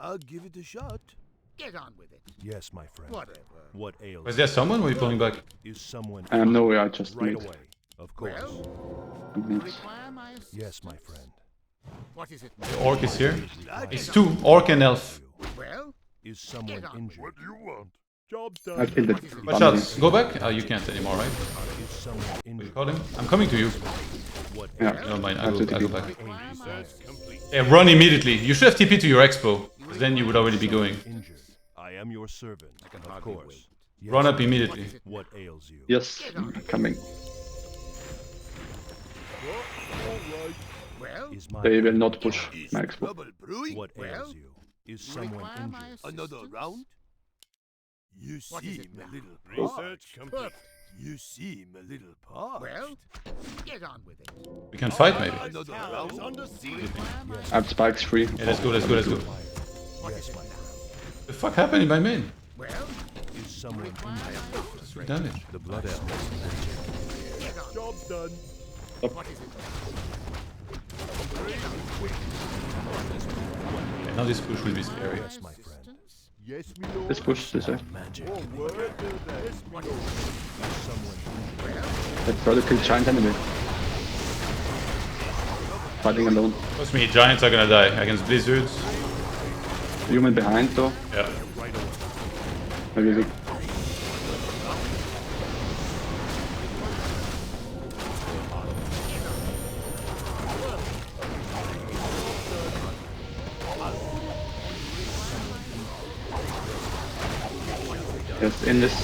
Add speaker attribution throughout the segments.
Speaker 1: I'll give it a shot.
Speaker 2: Get on with it.
Speaker 1: Yes, my friend.
Speaker 2: Whatever.
Speaker 1: What ails
Speaker 3: Was there someone? Were you pulling back?
Speaker 1: is someone
Speaker 4: Um, no, I just
Speaker 1: right
Speaker 4: need.
Speaker 1: away? Of course.
Speaker 2: Well,
Speaker 4: I'm
Speaker 2: you
Speaker 4: need.
Speaker 2: require my assistance?
Speaker 1: Yes, my friend.
Speaker 2: What is it?
Speaker 3: The orc is here.
Speaker 1: That
Speaker 3: It's two orc and elf.
Speaker 2: Well,
Speaker 1: is someone
Speaker 2: Get up.
Speaker 1: injured?
Speaker 5: do you want?
Speaker 1: Job's
Speaker 4: I killed it.
Speaker 3: Watch out. Go back. Oh, you can't anymore, right?
Speaker 1: Is someone
Speaker 3: What do you
Speaker 1: injured?
Speaker 3: call him? I'm coming to you.
Speaker 1: What
Speaker 4: Yeah.
Speaker 3: Never mind. I go, I go back.
Speaker 2: require my
Speaker 3: Yeah, Eh, run immediately. You should have TP to your expo. 'cause Then you would already be going.
Speaker 1: injured? I am your servant. Of
Speaker 2: hardly
Speaker 1: course. Yes.
Speaker 3: Run up immediately.
Speaker 1: What ails you?
Speaker 4: Yes, coming.
Speaker 2: Well,
Speaker 1: Is my
Speaker 4: They will not push my expo.
Speaker 5: Trouble brewing?
Speaker 1: what
Speaker 2: Well,
Speaker 1: ails you? Is
Speaker 2: you
Speaker 1: someone
Speaker 2: require my
Speaker 1: injured?
Speaker 5: Another
Speaker 2: assistance?
Speaker 5: round? You
Speaker 2: What is it
Speaker 5: seem
Speaker 2: now?
Speaker 5: a little
Speaker 2: Research
Speaker 5: parched.
Speaker 2: complete.
Speaker 5: You seem a little parched.
Speaker 2: Well, get on with it.
Speaker 3: We can fight maybe.
Speaker 5: Another round?
Speaker 2: Require my
Speaker 4: I have spikes free.
Speaker 3: Yeah, let's go, let's go, let's go.
Speaker 2: What is it now?
Speaker 3: The fuck happened in my main?
Speaker 2: Well,
Speaker 1: Is someone
Speaker 2: require
Speaker 1: injured?
Speaker 2: my assistance.
Speaker 3: Three damage.
Speaker 1: The blood elf.
Speaker 2: Get on.
Speaker 1: Job's done.
Speaker 2: What is it now?
Speaker 3: Yeah, now this push will be scary.
Speaker 1: Yes, my friend.
Speaker 2: Assistance?
Speaker 1: Yes, we know.
Speaker 4: Let's push this eh? way.
Speaker 1: Magic.
Speaker 2: What is it?
Speaker 1: Someone injured.
Speaker 4: Let's try to kill giant enemy. Fighting alone.
Speaker 3: Trust me, giants are gonna die against blizzards.
Speaker 4: Human behind though.
Speaker 3: Yeah.
Speaker 4: Maybe we. Yes, in this.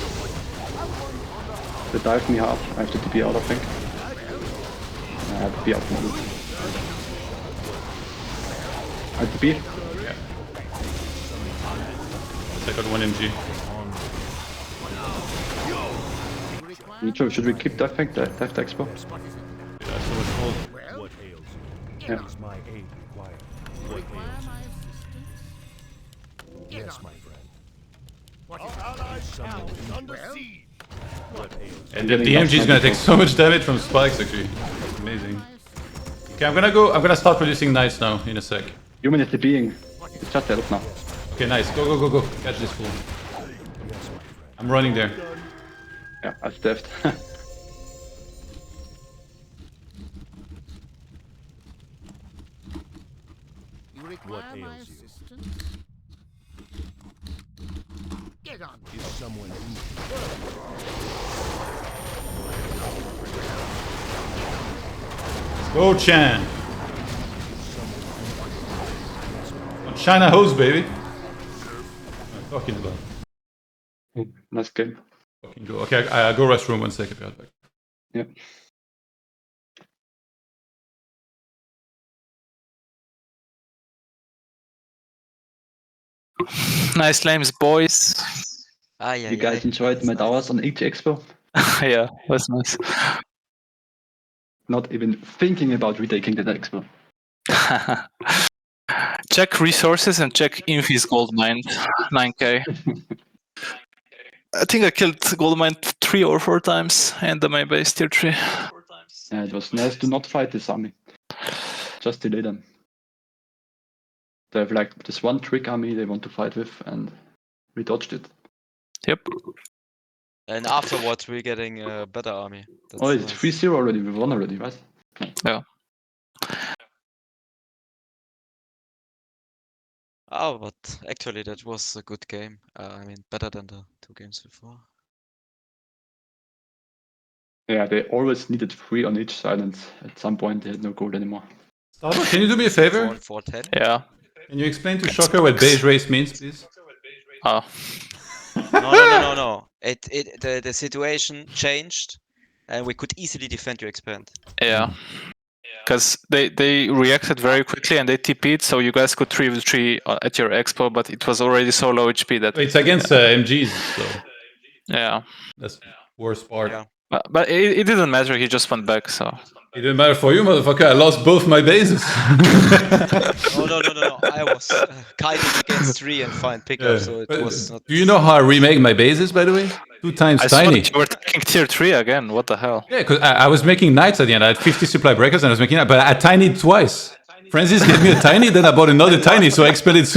Speaker 4: They dive me hard. I have to TP out, I think. I have to be out. I have to be.
Speaker 3: I got one MG.
Speaker 2: Require
Speaker 4: I'm not sure, should we keep dive tank? Dive, dive the expo?
Speaker 2: What is it now?
Speaker 3: Yeah, I saw it fall.
Speaker 2: Well,
Speaker 1: What ails you?
Speaker 2: get
Speaker 4: Yeah.
Speaker 2: on.
Speaker 1: Is my aid required? What
Speaker 2: Require
Speaker 1: ails you?
Speaker 2: my assistance? Get
Speaker 1: Yes,
Speaker 2: on.
Speaker 1: my friend.
Speaker 2: What is it?
Speaker 1: Someone injured.
Speaker 2: Well,
Speaker 1: What ails
Speaker 3: And the, the MG is gonna take so much damage from spikes actually. It's amazing. Okay, I'm gonna go. I'm gonna start producing knights now in a sec.
Speaker 4: Human is the being. It's just help now.
Speaker 3: Okay, nice. Go, go, go, go. Catch this fool. I'm running there.
Speaker 4: Yeah, I staffed.
Speaker 2: you require my
Speaker 1: ails you?
Speaker 2: assistance? Get on.
Speaker 1: you? Is someone injured?
Speaker 3: Go, Chan. On Oh, China hose, baby. Oh, What am I talking about.
Speaker 4: nice game.
Speaker 3: Fucking go. Okay, I, I go restroom one second. be right back.
Speaker 4: Yeah.
Speaker 6: Nice lames, boys.
Speaker 7: Ah, yeah,
Speaker 4: You guys enjoyed my hours on each expo?
Speaker 6: yeah, that's nice.
Speaker 4: Not even thinking about retaking the expo.
Speaker 6: check resources and check Infi's gold mine, 9k. I think I killed gold mine three or four times and the main base tier three.
Speaker 4: Yeah, it was nice to not fight this army. Just delay them. They have like this one trick army they want to fight with and we dodged it.
Speaker 6: Yep.
Speaker 7: And afterwards, we're getting a better army. That's
Speaker 4: oh, it's
Speaker 7: nice.
Speaker 4: 3 0 already, we won already, right?
Speaker 7: Ah, but actually, that was a good game. Uh, I mean, better than the two games before.
Speaker 4: Yeah, they always needed 3 on each side and at some point they had no gold anymore.
Speaker 3: Starbuck, can you do me a
Speaker 7: Four,
Speaker 3: favor?
Speaker 7: four, ten.
Speaker 6: Yeah.
Speaker 3: Can you explain to Shocker what beige race means, please?
Speaker 6: Oh.
Speaker 7: No, no, no, no, no. It, it, the, the situation changed, and we could easily defend your expand.
Speaker 6: Yeah. Because they, they reacted very quickly and they TP'd, so you guys could 3v3 uh, at your expo, but it was already so low HP that.
Speaker 3: It's against uh, MGs, so
Speaker 6: Yeah.
Speaker 3: that's the worst part.
Speaker 7: Yeah.
Speaker 6: But, but it, it didn't matter, he just went back, so.
Speaker 3: It didn't matter for you, motherfucker. I lost both my bases.
Speaker 7: No, no, no, no, no. I was uh, kiting against three and fine pickup, so it
Speaker 3: But
Speaker 7: was not.
Speaker 3: Do you know how I remake my bases, by the way? Two times
Speaker 6: I saw
Speaker 3: tiny.
Speaker 6: that you were taking tier 3 again, what the hell?
Speaker 3: Yeah, because I, I was making knights at the end. I had 50 supply breakers and I was making knights, but I tinied twice. Francis gave me a tiny, then I bought another tiny, so I expanded super.